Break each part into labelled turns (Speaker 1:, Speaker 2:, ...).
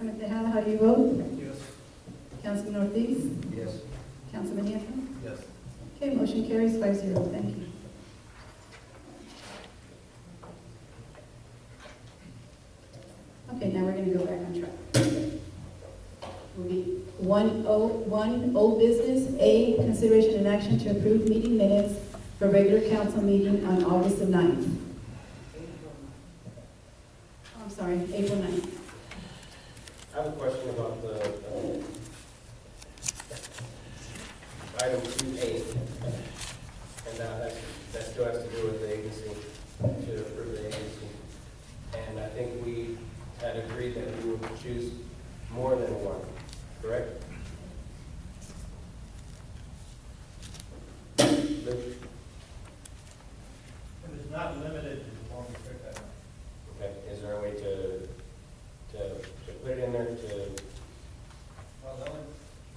Speaker 1: do you vote?
Speaker 2: Yes.
Speaker 1: Councilman Ortiz?
Speaker 2: Yes.
Speaker 1: Councilman Nieto?
Speaker 2: Yes.
Speaker 1: Okay, motion carries five zero, thank you. Okay, now we're gonna go back on track. Will be One O, one old business, A, consideration and action to approve meeting minutes for regular council meeting on August the ninth. Oh, I'm sorry, April ninth.
Speaker 3: I have a question about the, um, item two eight, and that, that's- that still has to do with the agency, to approve the agency. And I think we had agreed that we would choose more than one, correct? Luke?
Speaker 2: It is not limited to the form of pickup.
Speaker 3: Okay, is there a way to, to, to put it in there to
Speaker 2: Well, the only,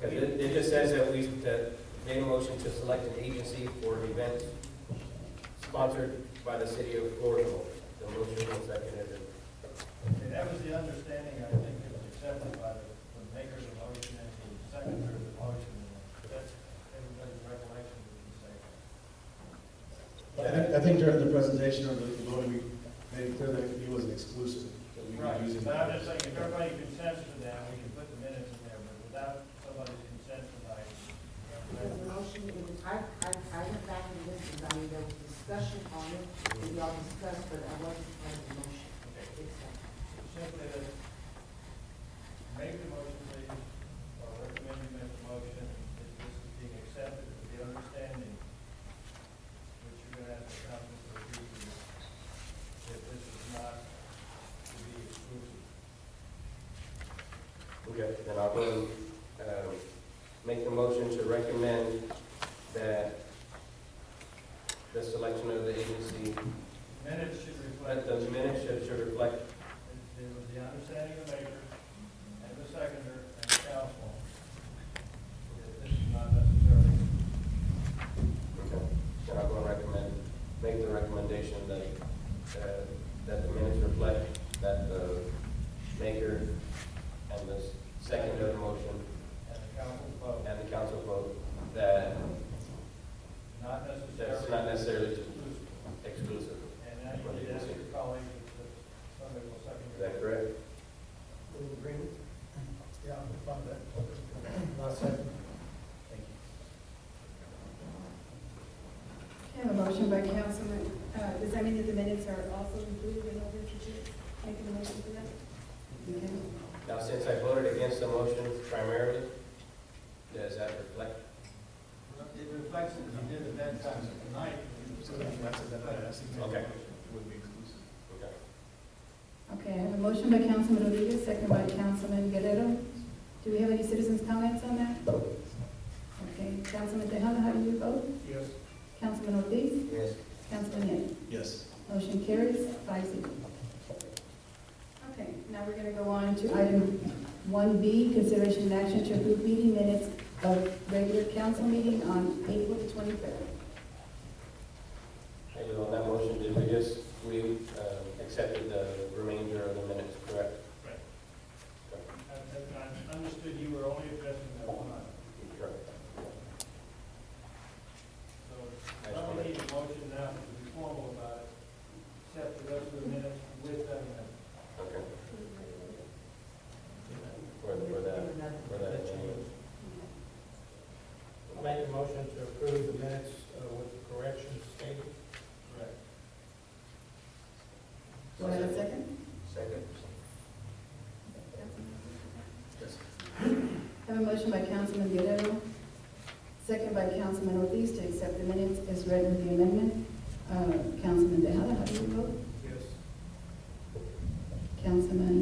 Speaker 3: Because it, it just says that we, that made a motion to select an agency for an event sponsored by the city of Florida. The motion was seconded.
Speaker 2: okay, that was the understanding, I think, it was accepted by the, the maker of the motion and the seconder of the motion. That's everybody's recollection, we can say.
Speaker 4: I think- I think during the presentation or the voting, we made it clear that he wasn't exclusive, that we
Speaker 2: Right,
Speaker 4: were using.
Speaker 2: but I'm just saying, if everybody consents to that, we can put the minutes in there, but without somebody's consent tonight. you know,
Speaker 5: There's a motion, it was, I, I, I went back and listened, I mean, there was discussion on it, and y'all discussed, but I wasn't part of the motion.
Speaker 2: Okay.
Speaker 5: It's-
Speaker 2: simply to make the motion, please, or recommend you make the motion, if this is being accepted with the understanding, which you're gonna have to come to the people, that this is not to be exclusive.
Speaker 3: Okay, then I'll go, um, make the motion to recommend that the selection of the agency,
Speaker 2: Minutes should reflect
Speaker 3: but the minutes should, should reflect,
Speaker 2: It was the understanding of the maker and the seconder and the council that this is not necessarily.
Speaker 3: okay, then I'll go and recommend, make the recommendation that, uh, that the minutes reflect that the maker and the second of the motion
Speaker 2: And the council vote,
Speaker 3: and the council vote that
Speaker 2: not
Speaker 3: that's
Speaker 2: necessarily
Speaker 3: not necessarily
Speaker 2: exclusive.
Speaker 3: exclusive.
Speaker 2: And now you need to ask your colleagues if somebody will second
Speaker 3: Is
Speaker 2: your.
Speaker 3: that correct?
Speaker 4: Yeah, I'm fine with
Speaker 1: I have a motion by Councilman, uh, does that mean that the minutes are also included in order to choose, making a motion for that? Okay.
Speaker 3: Now, since I voted against the motion primarily, does that reflect?
Speaker 2: It reflects that you did at that time tonight.
Speaker 4: So that's, that's, that's.
Speaker 3: Okay.
Speaker 4: Would be exclusive.
Speaker 3: Okay.
Speaker 1: Okay, I have a motion by Councilman Rodriguez, second by Councilman Guerrero. Do we have any citizens' comments on that? Okay, Councilman Tejada, how do you vote?
Speaker 2: Yes.
Speaker 1: Councilman Ortiz?
Speaker 3: Yes.
Speaker 1: Councilman Nieto?
Speaker 4: Yes.
Speaker 1: Motion carries five zero. Okay, now we're gonna go on to item one B, consideration and action to approve meeting minutes of regular council meeting on April the twenty-third.
Speaker 3: And on that motion, did we just, we um, accepted the remainder of the minutes, correct?
Speaker 2: Right.
Speaker 3: Okay.
Speaker 2: I understood you were only addressing that one item.
Speaker 3: Correct.
Speaker 2: So somebody need a motion now to be formal about it, except the rest of the minutes with that amendment.
Speaker 3: Okay. For, for that, for that change.
Speaker 6: Make a motion to approve the minutes uh, with the corrections stated.
Speaker 2: Correct.
Speaker 1: Do I have a second?
Speaker 3: Second. Yes.
Speaker 1: I have a motion by Councilman Guerrero, second by Councilman Ortiz to accept the minutes as read with the amendment. Uh, Councilman Tejada, how do you vote?
Speaker 2: Yes.
Speaker 1: Councilman